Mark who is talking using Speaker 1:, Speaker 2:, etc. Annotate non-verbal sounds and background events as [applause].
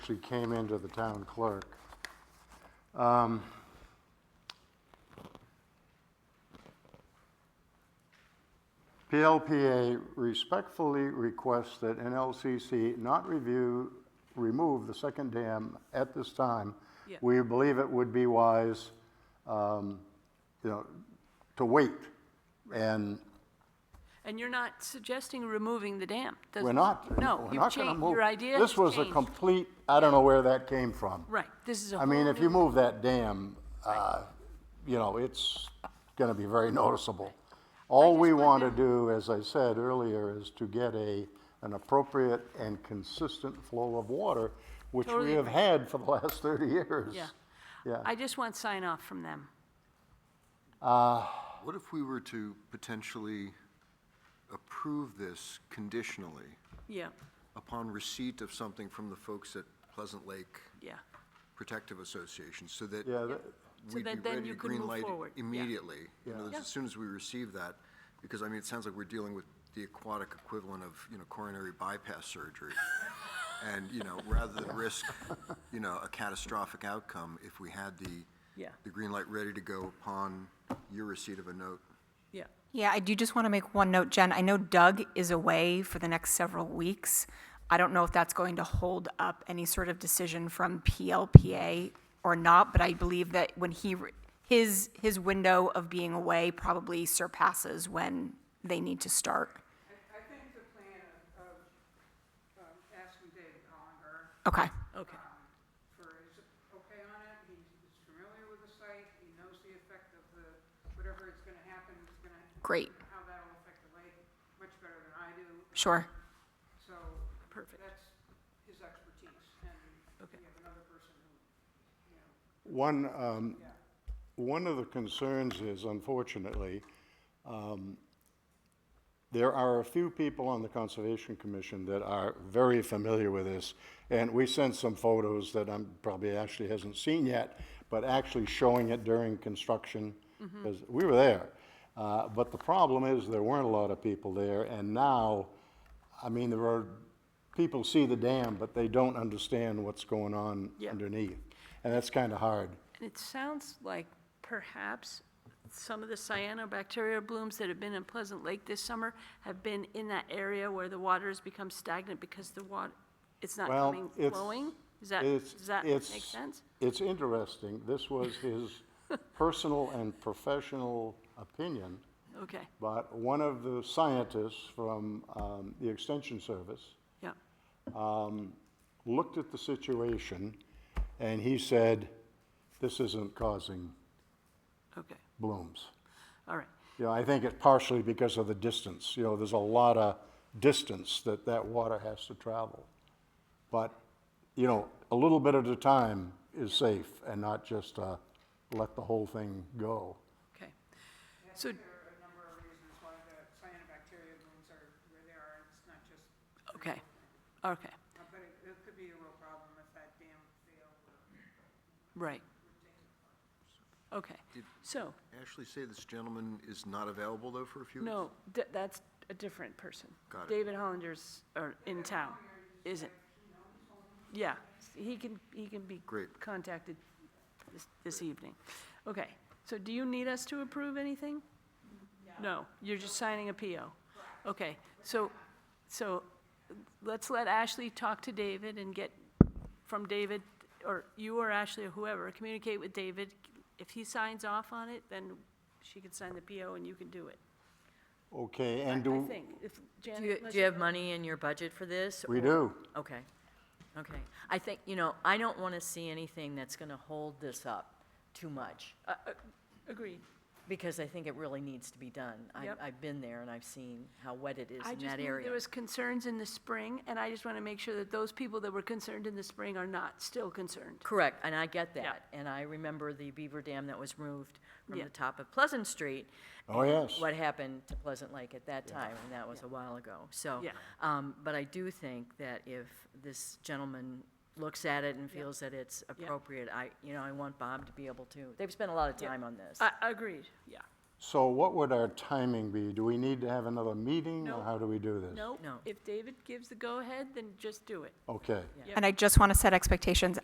Speaker 1: actually came into the town clerk. Um, PLPA respectfully requests that NLCC not review, remove the second dam at this time.
Speaker 2: Yeah.
Speaker 1: We believe it would be wise, um, you know, to wait. And
Speaker 2: And you're not suggesting removing the dam? does-
Speaker 1: we're not.
Speaker 2: No,
Speaker 1: we're
Speaker 2: you've
Speaker 1: not gonna
Speaker 2: changed,
Speaker 1: move.
Speaker 2: your idea has
Speaker 1: This was a
Speaker 2: changed.
Speaker 1: complete, I don't know where that came from.
Speaker 2: Right, this is a
Speaker 1: I
Speaker 2: whole
Speaker 1: mean, if you
Speaker 2: new,
Speaker 1: move that dam, uh, you know, it's going to be very noticeable. All we want to do, as I said earlier, is to get a, an appropriate and consistent flow of water, which we
Speaker 2: Totally
Speaker 1: have had for the last 30 years.
Speaker 2: yeah.
Speaker 1: Yeah.
Speaker 2: I just want sign off from them.
Speaker 3: What if we were to potentially approve this conditionally
Speaker 2: Yeah,
Speaker 3: upon receipt of something from the folks at Pleasant Lake
Speaker 2: yeah,
Speaker 3: Protective Association, so that
Speaker 1: Yeah, that-
Speaker 2: So
Speaker 3: we'd be
Speaker 2: that then
Speaker 3: ready
Speaker 2: you
Speaker 3: to
Speaker 2: could move
Speaker 3: greenlight it
Speaker 2: forward, yeah.
Speaker 3: immediately? In other words,
Speaker 2: Yeah.
Speaker 3: As soon as we receive that, because I mean, it sounds like we're dealing with the aquatic equivalent of, you know, coronary
Speaker 2: [laughs]
Speaker 3: bypass surgery. And, you know, rather than risk, you know, a catastrophic outcome, if we had the,
Speaker 2: Yeah.
Speaker 3: the green light ready to go upon your receipt of a note.
Speaker 2: yeah.
Speaker 4: Yeah, I do just want to make one note, Jen. I know Doug is away for the next several weeks. I don't know if that's going to hold up any sort of decision from PLPA or not, but I believe that when he, re- his, his window of being away probably surpasses when they need to start.
Speaker 5: I, I think the plan of, of, um, asking David Hollinger,
Speaker 4: Okay,
Speaker 2: Okay,
Speaker 5: um, for his okay on it, he's he's familiar with the site, he knows the effect of the, whatever is gonna happen, is gonna.
Speaker 4: Great.
Speaker 5: How that'll affect the lake much better than I do,
Speaker 4: sure.
Speaker 5: so.
Speaker 2: Perfect.
Speaker 5: That's his expertise, and
Speaker 2: Okay.
Speaker 5: we have another person who, you know,
Speaker 1: One, um, one of the concerns is unfortunately, um, there are a few people on the Conservation Commission that are very familiar with this. And we sent some photos that I'm, probably Ashley hasn't seen yet, but actually showing it during construction. Because we were there. Uh, but the problem is there weren't a lot of people there and now, I mean, there are, people see the dam, but they don't understand what's going on
Speaker 2: Yeah.
Speaker 1: underneath. And that's kind of hard.
Speaker 2: and it sounds like perhaps some of the cyanobacteria blooms that have been in Pleasant Lake this summer have been in that area where the water has become stagnant because the water, it's not
Speaker 1: Well,
Speaker 2: coming,
Speaker 1: it's-
Speaker 2: flowing? Is that,
Speaker 1: it's-
Speaker 2: does that make
Speaker 1: it's-
Speaker 2: sense?
Speaker 1: It's interesting. This was
Speaker 2: [laughs]
Speaker 1: his personal and professional opinion,
Speaker 2: Okay,
Speaker 1: but one of the scientists from um, the Extension Service
Speaker 2: yeah,
Speaker 1: looked at the situation and he said, this isn't causing
Speaker 2: okay,
Speaker 1: blooms.
Speaker 2: all right.
Speaker 1: You know, I think it's partially because of the distance. You know, there's a lot of distance that that water has to travel. But, you know, a little bit at a time is safe and not just uh, let the whole thing go.
Speaker 2: Okay. So,
Speaker 5: there are a number of reasons why the cyanobacteria blooms are where they are, it's not just,
Speaker 2: okay, okay,
Speaker 5: uh, but it, it could be a real problem if that dam failed or.
Speaker 2: right. Okay, so,
Speaker 3: Ashley, say this gentleman is not available, though, for a few weeks?
Speaker 2: no, th- that's a different person.
Speaker 3: Got it.
Speaker 2: David Hollinger's are in town, isn't? Yeah, he can, he can be
Speaker 3: Great.
Speaker 2: contacted this, this evening. Okay, so do you need us to approve anything? No, you're just signing a PO. Okay, so, so let's let Ashley talk to David and get from David, or you or Ashley or whoever, communicate with David. If he signs off on it, then she can sign the PO and you can do it.
Speaker 1: Okay, and
Speaker 2: I
Speaker 1: do,
Speaker 2: think, if
Speaker 6: Do you,
Speaker 2: Janet, unless
Speaker 6: do you have money in your budget for this?
Speaker 1: we
Speaker 6: or-
Speaker 1: do.
Speaker 6: Okay, okay. I think, you know, I don't want to see anything that's going to hold this up too much,
Speaker 2: uh, uh, agreed.
Speaker 6: because I think it really needs to be done. I,
Speaker 2: Yep.
Speaker 6: I've been there and I've seen how wet it is
Speaker 2: I
Speaker 6: in
Speaker 2: just
Speaker 6: that
Speaker 2: knew
Speaker 6: area.
Speaker 2: there was concerns in the spring, and I just want to make sure that those people that were concerned in the spring are not still concerned.
Speaker 6: Correct, and I get that. And I remember the beaver dam that was removed from
Speaker 2: Yeah.
Speaker 6: the top of Pleasant Street.
Speaker 1: Oh, yes.
Speaker 6: What happened to Pleasant Lake at that time, and that was a while ago, so.
Speaker 2: Yeah.
Speaker 6: Um, but I do think that if this gentleman looks at it and feels that it's appropriate, I, you know, I want Bob to be able to, they've spent a lot of time on this.
Speaker 2: I, agreed, yeah.
Speaker 1: So what would our timing be? Do we need to have another meeting,
Speaker 2: No.
Speaker 1: or how do we do this?
Speaker 2: No,
Speaker 6: No.
Speaker 2: if David gives the go-ahead, then just do it.
Speaker 1: Okay.
Speaker 4: And I just want to set expectations.